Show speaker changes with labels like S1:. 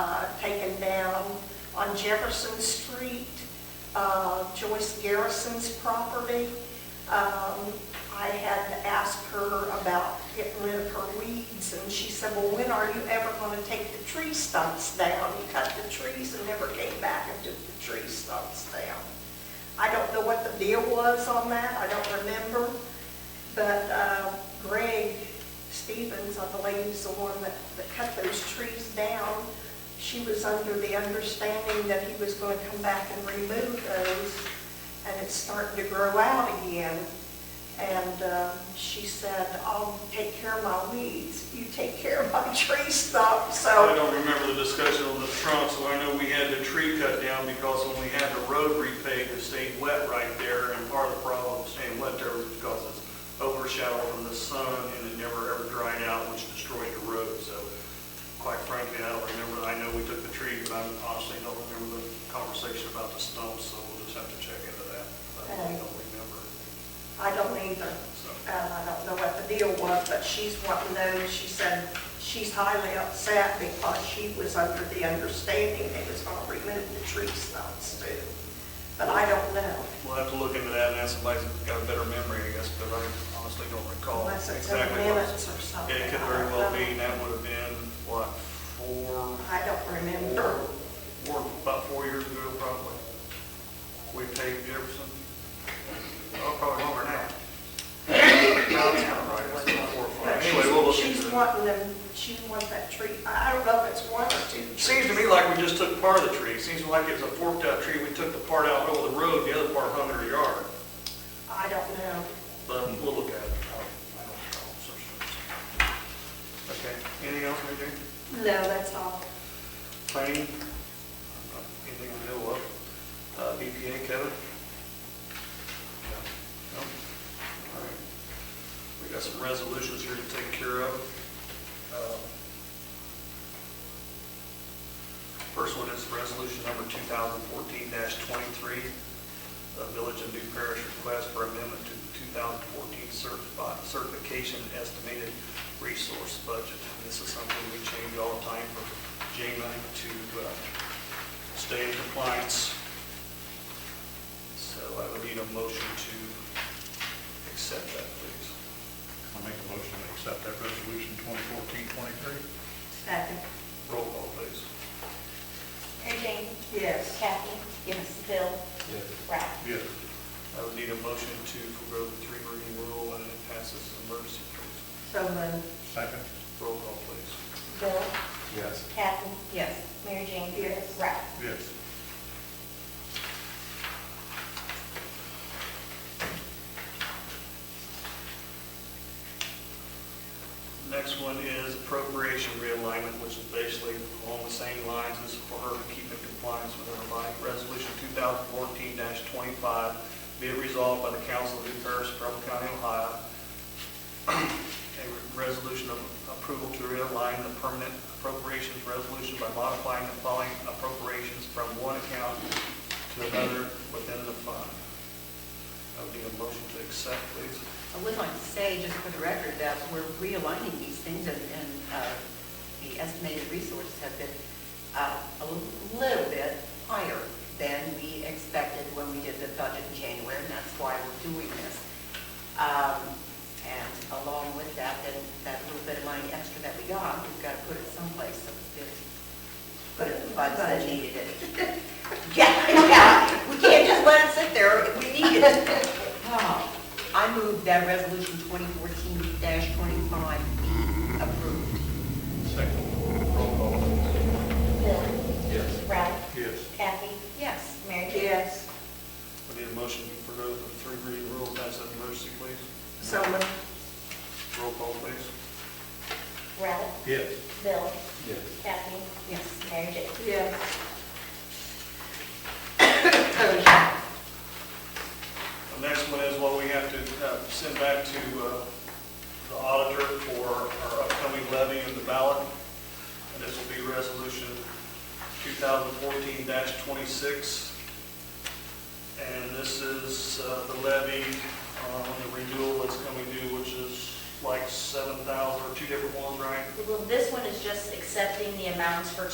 S1: uh, on Jefferson Street, uh, Joyce Garrison's property. Um, I had asked her about getting rid of her weeds, and she said, well, when are you ever going to take the tree stumps down? You cut the trees and never came back and took the tree stumps down. I don't know what the deal was on that, I don't remember, but uh, Greg Stevens, I believe, is the one that, that cut those trees down. She was under the understanding that he was going to come back and remove those, and it's starting to grow out again. And uh, she said, I'll take care of my weeds, you take care of my tree stump,
S2: I
S1: so,
S2: don't remember the discussion on the trunk, so I know we had the tree cut down because when we had the road repaved, it stayed wet right there, and part of the problem staying wet there was because it's overshadow from the sun, and it never ever dried out, which destroyed the road, so quite frankly, I don't remember, I know we took the tree, but I honestly don't remember the conversation about the stumps, so we'll just have to check into that, but I don't remember,
S1: I don't either.
S2: so.
S1: um, I don't know what the deal was, but she's wanting those, she said she's highly upset because she was under the understanding they was gonna remove the tree stumps too. But I don't know,
S2: We'll have to look into that and ask somebody who's got a better memory, I guess, but I honestly don't recall
S1: unless it's in the
S2: exactly what.
S1: minutes or something.
S2: It could very well be, and that would have been, what, four?
S1: I don't remember.
S2: Four, about four years ago, probably. We paved Jefferson. Oh, probably longer now. No, it's not right, it's about four or
S1: But
S2: five. Anyway, we'll uh,
S1: she's,
S2: look into
S1: she's
S2: it.
S1: wanting them, she wants that tree, I I don't know if it's one or two.
S2: Seems to me like we just took part of the tree. Seems like it's a forked out tree. We took the part out over the road, the other part hung in her yard.
S1: I don't know.
S2: But we'll look at it. I don't- I don't know, so sure. Okay, anything else, Mary Jane?
S1: No, that's all.
S2: planning, not anything I know of. Uh, BPA, Kevin? No? No? All right. We got some resolutions here to take care of. Um, First one is resolution number 2014-23, the Village of New Parish request for amendment to the 2014 certifi- certification and estimated resource budget. And this is something we change all the time for JMA to uh, stay in compliance. So I would need a motion to accept that, please.
S3: I'll make a motion to accept that resolution 2014-23.
S1: Second.
S2: Roll call, please.
S4: Mary Jane?
S1: Yes.
S4: Kathy? Yes. Bill? Yes. Ralph?
S3: Yes.
S2: I would need a motion to forego the three reading rule and it passes as an emergency, please.
S1: So moved.
S3: Second?
S2: Roll call, please.
S4: Bill?
S3: Yes.
S4: Kathy?
S1: Yes.
S4: Mary Jane?
S1: Yes.
S4: Ralph?
S3: Yes.
S2: Next one is appropriation realignment, which is basically along the same lines as for her to keep in compliance with her body. Resolution 2014-25, be it resolved by the Council of New Paris, Trumbull County, Ohio, a resolution of approval to realign the permanent appropriations resolution by modifying the following appropriations from one account to another within the fund. I would need a motion to accept, please.
S5: I would like to say, just for the record, that we're realigning these things, and and, uh, the estimated resources have been uh, a little bit higher than we expected when we did the budget in January, and that's why we're doing this. Um, And along with that, then that little bit of money extra that we got, we've got to put it someplace, so it's put it in the budget that needed it. Yeah, yeah, we can't just let it sit there, we need it. Oh, I move that resolution 2014-25 be approved.
S3: Second? Roll call.
S4: Bill?
S3: Yes.
S4: Ralph?
S3: Yes.
S4: Kathy?
S5: Yes.
S4: Mary Jane?
S1: Yes.
S2: I need a motion for the three reading rule, that's an emergency, please.
S1: So moved.
S2: Roll call, please.
S4: Ralph?
S3: Yes.
S4: Bill?
S3: Yes.
S4: Kathy?
S5: Yes.
S4: Mary Jane?
S1: Yes.
S2: The next one is what we have to uh, send back to uh, the auditor for our upcoming levy and the ballot. And this will be resolution 2014-26. And this is uh, the levy on the renewal that's coming due, which is like 7,000 or two different ones, right?
S6: Well, this one is just accepting the amounts for